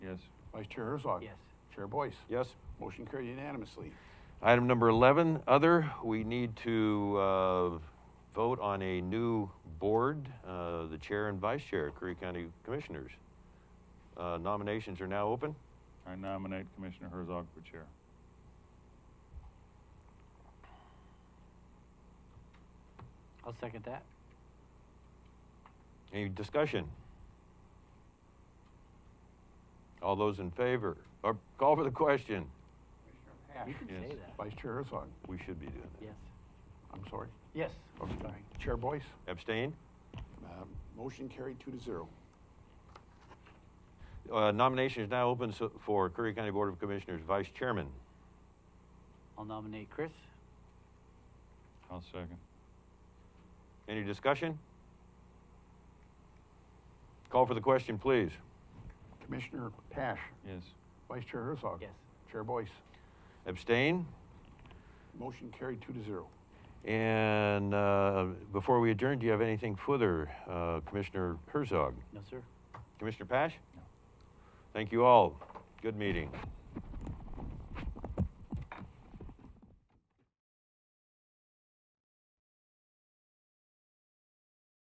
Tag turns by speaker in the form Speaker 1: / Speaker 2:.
Speaker 1: Yes.
Speaker 2: Vice Chair Herzog.
Speaker 3: Yes.
Speaker 2: Chair Boyce.
Speaker 1: Yes.
Speaker 2: Motion carried unanimously.
Speaker 1: Item number 11, other, we need to uh, vote on a new board, uh, the chair and vice chair, of Curry County Commissioners. Uh, Nominations are now open.
Speaker 4: I nominate Commissioner Herzog for chair.
Speaker 3: I'll second that.
Speaker 1: Any discussion? All those in favor, or call for the question.
Speaker 3: You can
Speaker 1: Yes.
Speaker 3: say that.
Speaker 2: Vice Chair Herzog.
Speaker 1: We should be doing that.
Speaker 3: Yes.
Speaker 2: I'm sorry.
Speaker 3: Yes.
Speaker 2: Okay. Chair Boyce.
Speaker 1: Abstain?
Speaker 2: Uh, Motion carried two to zero.
Speaker 1: Uh, Nomination is now open so- for Curry County Board of Commissioners Vice Chairman.
Speaker 3: I'll nominate Chris.
Speaker 4: I'll second.
Speaker 1: Any discussion? Call for the question, please.
Speaker 2: Commissioner Pash.
Speaker 4: Yes.
Speaker 2: Vice Chair Herzog.
Speaker 3: Yes.
Speaker 2: Chair Boyce.
Speaker 1: Abstain?
Speaker 2: Motion carried two to zero.
Speaker 1: And uh, before we adjourn, do you have anything further, uh, Commissioner Herzog?
Speaker 3: No, sir.
Speaker 1: Commissioner Pash?
Speaker 4: No.
Speaker 1: Thank you all. Good meeting.